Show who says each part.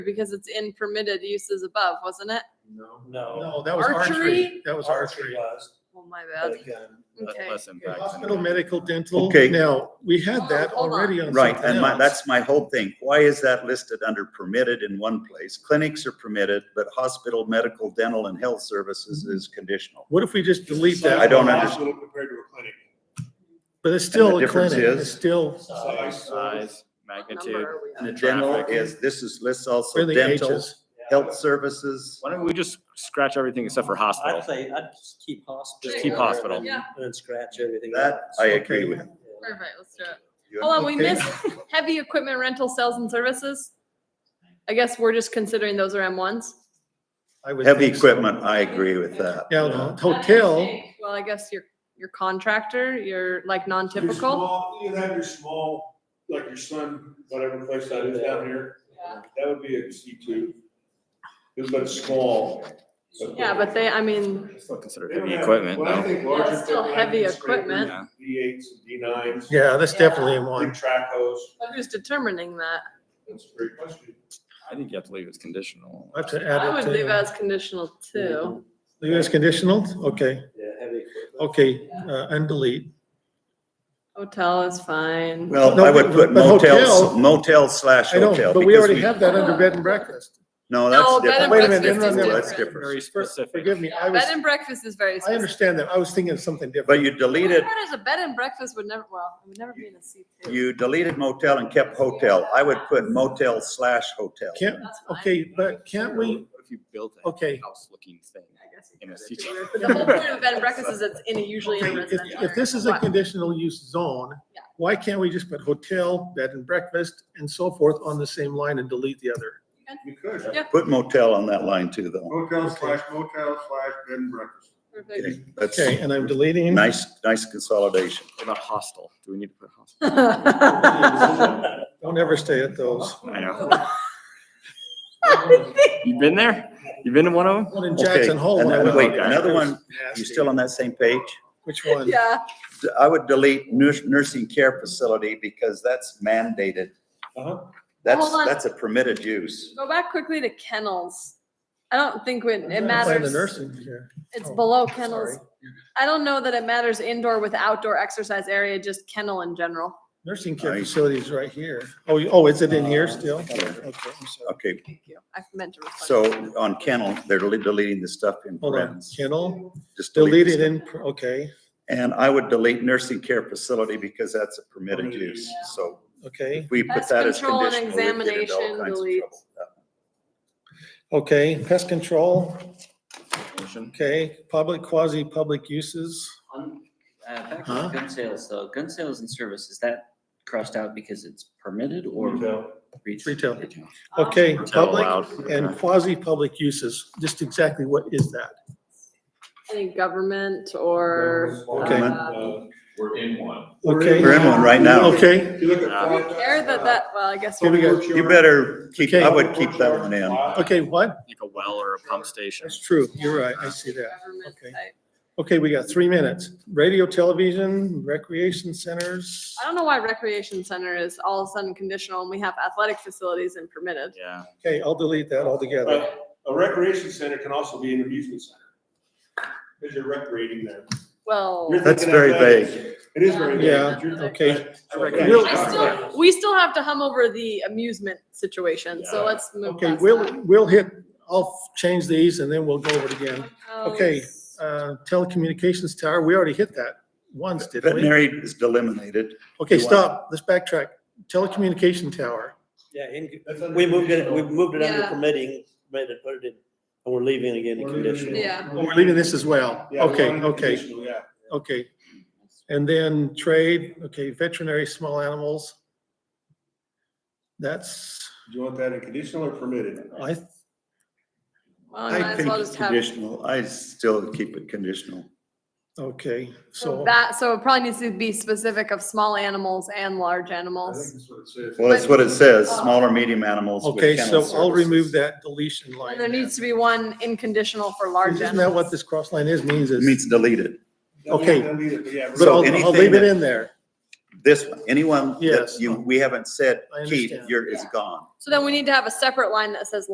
Speaker 1: because it's in permitted uses above, wasn't it?
Speaker 2: No.
Speaker 1: Oh.
Speaker 3: No.
Speaker 2: No, that was
Speaker 1: Archery?
Speaker 2: archery. That was archery.
Speaker 3: was,
Speaker 1: Oh, my
Speaker 3: but
Speaker 1: bad.
Speaker 3: again,
Speaker 4: le-
Speaker 1: Okay.
Speaker 4: less impactful.
Speaker 2: Hospital, medical, dental.
Speaker 5: Okay.
Speaker 2: Now, we had that
Speaker 1: Oh, Hold on.
Speaker 2: already on
Speaker 5: Right,
Speaker 2: something
Speaker 5: and my,
Speaker 2: else.
Speaker 5: that's my whole thing. Why is that listed under permitted in one place? Clinics are permitted, but hospital, medical, dental, and health services
Speaker 2: Mm-hmm.
Speaker 5: is conditional.
Speaker 2: What if we just delete that?
Speaker 5: I don't
Speaker 6: Size of a
Speaker 5: understand.
Speaker 6: hospital Compared to a clinic.
Speaker 2: But it's still
Speaker 5: And the
Speaker 2: a clinic.
Speaker 5: difference is-
Speaker 2: It's still
Speaker 3: size,
Speaker 4: Size,
Speaker 1: What number
Speaker 4: magnitude.
Speaker 1: are we on?
Speaker 5: And the
Speaker 4: the
Speaker 5: dental
Speaker 4: traffic.
Speaker 5: is, this is, lists also
Speaker 2: where the
Speaker 5: dental,
Speaker 2: H's.
Speaker 5: health services.
Speaker 4: Why don't we just scratch everything except for hospital?
Speaker 3: I'd say, I'd just keep hospital.
Speaker 4: Just keep hospital.
Speaker 1: Yeah,
Speaker 3: And then scratch everything.
Speaker 5: That
Speaker 3: else.
Speaker 5: I agree with.
Speaker 3: Yeah.
Speaker 1: perfect, let's do it.
Speaker 5: You
Speaker 1: Hold on, we
Speaker 2: Okay.
Speaker 1: missed heavy equipment rental sales and services. I guess we're just considering those are M ones.
Speaker 2: I would
Speaker 5: Heavy
Speaker 2: think so.
Speaker 5: equipment, I agree with that.
Speaker 2: Now, the hotel,
Speaker 1: Well, I guess your, your contractor, your like
Speaker 6: Your
Speaker 1: non-typical.
Speaker 6: small- You have your small, like your son, whatever place that is down here, that would be a C two. It's but small.
Speaker 1: Yeah, but they, I mean,
Speaker 4: Still considered
Speaker 6: They don't
Speaker 4: heavy
Speaker 6: have-
Speaker 4: equipment
Speaker 6: Well, I
Speaker 4: though.
Speaker 6: think larger.
Speaker 1: Yeah, it's still heavy equipment.
Speaker 6: D eights, D nines, big
Speaker 2: yeah, that's
Speaker 1: Yeah.
Speaker 2: definitely in one.
Speaker 6: track hose.
Speaker 1: but who's determining that?
Speaker 6: That's a great question.
Speaker 4: I think you have to leave it as conditional.
Speaker 2: I have to
Speaker 1: I
Speaker 2: add it
Speaker 1: would leave
Speaker 2: to,
Speaker 1: as conditional too.
Speaker 2: leave as conditional? Okay,
Speaker 3: Yeah, heavy equipment.
Speaker 2: okay, uh, and delete.
Speaker 1: Hotel is fine.
Speaker 5: Well,
Speaker 2: No,
Speaker 5: I would
Speaker 2: but-
Speaker 5: put
Speaker 2: but
Speaker 5: motel,
Speaker 2: hotel-
Speaker 5: motel slash
Speaker 2: I know,
Speaker 5: hotel.
Speaker 2: but we
Speaker 5: because
Speaker 2: already have that under bed and breakfast.
Speaker 5: No,
Speaker 1: No, bed and
Speaker 5: that's different.
Speaker 2: Wait a minute,
Speaker 1: breakfast
Speaker 2: no,
Speaker 1: is
Speaker 2: no, no,
Speaker 5: That's
Speaker 1: different.
Speaker 5: different.
Speaker 4: Very specific.
Speaker 2: Forgive me, I was,
Speaker 1: Bed and breakfast is very
Speaker 2: I
Speaker 1: specific.
Speaker 2: understand that. I was thinking of something different.
Speaker 5: But you
Speaker 1: What
Speaker 5: deleted
Speaker 1: about as a bed and breakfast would never, well, it would never be in a C two.
Speaker 5: You deleted motel and kept hotel. I would put motel slash hotel.
Speaker 2: Can't,
Speaker 1: That's fine.
Speaker 2: okay, but can't we,
Speaker 4: What If you built
Speaker 2: Okay.
Speaker 4: a house looking thing
Speaker 1: I guess
Speaker 4: in a
Speaker 1: you
Speaker 4: city.
Speaker 1: could. But the whole point of a bed and breakfast is it's in a usually in a
Speaker 2: Okay, if,
Speaker 1: residential.
Speaker 2: if this
Speaker 1: area.
Speaker 2: is a
Speaker 1: What?
Speaker 2: conditional use zone,
Speaker 1: Yeah.
Speaker 2: why can't we just put hotel, bed and breakfast and so forth on the same line and delete the other?
Speaker 6: You could.
Speaker 1: Yeah.
Speaker 5: Put motel on that line too, though.
Speaker 6: Hotel slash motel slash bed and breakfast.
Speaker 1: Perfect.
Speaker 5: Okay, That's
Speaker 2: Okay, and I'm deleting.
Speaker 5: nice, nice consolidation.
Speaker 4: What about hostel? Do we need to put hostel?
Speaker 1: I
Speaker 2: Don't ever stay at those.
Speaker 4: I know. You've been there? You've been in one of them?
Speaker 2: One in
Speaker 5: Okay,
Speaker 2: Jackson Hole.
Speaker 5: and
Speaker 2: when I
Speaker 5: then-
Speaker 2: went
Speaker 5: wait,
Speaker 2: out there,
Speaker 5: another
Speaker 2: it was
Speaker 5: one,
Speaker 2: nasty.
Speaker 5: You still on that same page?
Speaker 2: Which one?
Speaker 1: Yeah,
Speaker 5: D- I would delete nurs- nursing care facility because that's mandated.
Speaker 6: Uh-huh.
Speaker 5: That's,
Speaker 1: Hold on.
Speaker 5: that's a permitted use.
Speaker 1: go back quickly to kennels. I don't think
Speaker 2: I'm
Speaker 1: when
Speaker 2: trying
Speaker 1: it
Speaker 2: to find The
Speaker 1: matters,
Speaker 2: nursing here.
Speaker 1: it's
Speaker 2: oh,
Speaker 1: below
Speaker 2: Sorry.
Speaker 1: kennels. I don't know that it matters indoor with outdoor exercise area, just kennel in general.
Speaker 2: Nursing care
Speaker 5: Nice. Uh,
Speaker 2: facilities right here. Oh, you- oh, is it in here still? Okay, I'm sorry.
Speaker 5: Okay,
Speaker 1: Thank you. I meant to. reflect. Um,
Speaker 5: so on kennel, they're dele- deleting the stuff in
Speaker 2: Hold on,
Speaker 5: parentheses.
Speaker 2: kennel,
Speaker 5: Just delete
Speaker 2: deleted
Speaker 5: it.
Speaker 2: in, okay,
Speaker 5: And I would delete nursing care facility because that's a permitted
Speaker 6: Permitted
Speaker 5: use,
Speaker 1: use.
Speaker 5: so.
Speaker 2: okay,
Speaker 5: We put
Speaker 1: Pest
Speaker 5: that as
Speaker 1: control and
Speaker 5: conditional. we'd get into all
Speaker 1: examination,
Speaker 5: kinds of
Speaker 1: delete.
Speaker 5: trouble with that.
Speaker 2: okay. Pest control,
Speaker 4: Definition.
Speaker 2: okay, public, quasi-public uses.
Speaker 7: On, uh, back
Speaker 2: Huh?
Speaker 7: to gun sales, though, gun sales and service, is that crossed out because it's permitted or
Speaker 2: Retail.
Speaker 7: retail?
Speaker 2: Okay,
Speaker 4: Hotel
Speaker 2: public
Speaker 4: allowed.
Speaker 2: and quasi-public uses, just exactly what is that?
Speaker 1: Any government or.
Speaker 2: Okay.
Speaker 1: uh,
Speaker 6: We're in one.
Speaker 2: Okay.
Speaker 5: We're in one right now.
Speaker 2: Okay,
Speaker 6: You look at.
Speaker 4: Uh,
Speaker 6: Fort-
Speaker 1: Care that that, well, I guess.
Speaker 2: Here we go.
Speaker 5: You better keep, I would keep that one in.
Speaker 2: okay, what?
Speaker 4: Like a well or a pump station.
Speaker 2: That's true, you're right, I see that.
Speaker 1: Government
Speaker 2: Okay.
Speaker 1: type.
Speaker 2: Okay, we got three minutes. Radio, television, recreation centers.
Speaker 1: I don't know why recreation center is all of a sudden conditional and we have athletic facilities and permitted.
Speaker 4: Yeah.
Speaker 2: Okay, I'll delete that altogether.
Speaker 6: But A recreation center can also be an amusement center. Because you're recreating there.
Speaker 1: Well,
Speaker 6: You're
Speaker 5: That's
Speaker 6: thinking
Speaker 5: very
Speaker 6: athletics. It is very vague.
Speaker 2: Yeah,
Speaker 6: You're-
Speaker 2: okay.
Speaker 6: So-
Speaker 4: Recreation.
Speaker 1: I still, we still have to hum over the amusement situation, so
Speaker 6: Yeah.
Speaker 1: let's move.
Speaker 2: Okay,
Speaker 1: past
Speaker 2: we'll,
Speaker 1: that.
Speaker 2: we'll hit, I'll change these and then we'll go over it again. okay.
Speaker 1: Hotels.
Speaker 2: Uh, telecommunications tower, we already hit that once, didn't we?
Speaker 5: Veterinary is eliminated.
Speaker 2: Okay,
Speaker 5: You want-
Speaker 2: stop, let's backtrack. Telecommunication tower,
Speaker 3: Yeah, in-
Speaker 6: That's under
Speaker 3: we moved it,
Speaker 6: conditional.
Speaker 3: we moved it under
Speaker 1: Yeah.
Speaker 3: permitting, made it, put it in, and we're leaving it again in
Speaker 6: We're leaving it.
Speaker 3: conditional.
Speaker 1: Yeah.
Speaker 2: Oh, we're leaving this as well.
Speaker 6: Yeah, we're
Speaker 2: Okay,
Speaker 6: under
Speaker 2: okay.
Speaker 6: conditional, Yeah.
Speaker 2: okay. And then trade, okay, veterinary, small animals. That's,
Speaker 6: Do you want that in conditional or permitted?
Speaker 2: I,
Speaker 1: Well, you
Speaker 5: I
Speaker 1: might as
Speaker 5: think
Speaker 1: well just have,
Speaker 5: conditional, I still keep it conditional.
Speaker 2: okay,
Speaker 1: so
Speaker 2: so,
Speaker 1: that, so it probably needs to be specific of small animals and large
Speaker 6: I
Speaker 1: animals.
Speaker 6: think that's what it says.
Speaker 5: Well, that's what it says,
Speaker 1: uh,
Speaker 5: small or medium animals with
Speaker 2: okay, so
Speaker 5: kennel
Speaker 2: I'll
Speaker 5: services.
Speaker 2: remove that deletion line.
Speaker 1: And there needs to be one inconditional for
Speaker 2: there.
Speaker 1: large
Speaker 2: Isn't that
Speaker 1: animals.
Speaker 2: what this cross line is, means
Speaker 5: It
Speaker 2: is,
Speaker 5: means deleted.
Speaker 2: Okay.
Speaker 6: Don't leave it, but yeah,
Speaker 2: but I'll, I'll
Speaker 5: anything
Speaker 2: leave it
Speaker 5: that-
Speaker 2: in there.
Speaker 5: This one, anyone that
Speaker 2: Yes.
Speaker 5: you, we haven't said,
Speaker 2: I
Speaker 5: Keith,
Speaker 2: understand.
Speaker 5: you're, is gone.
Speaker 1: So then we need to have a separate line that says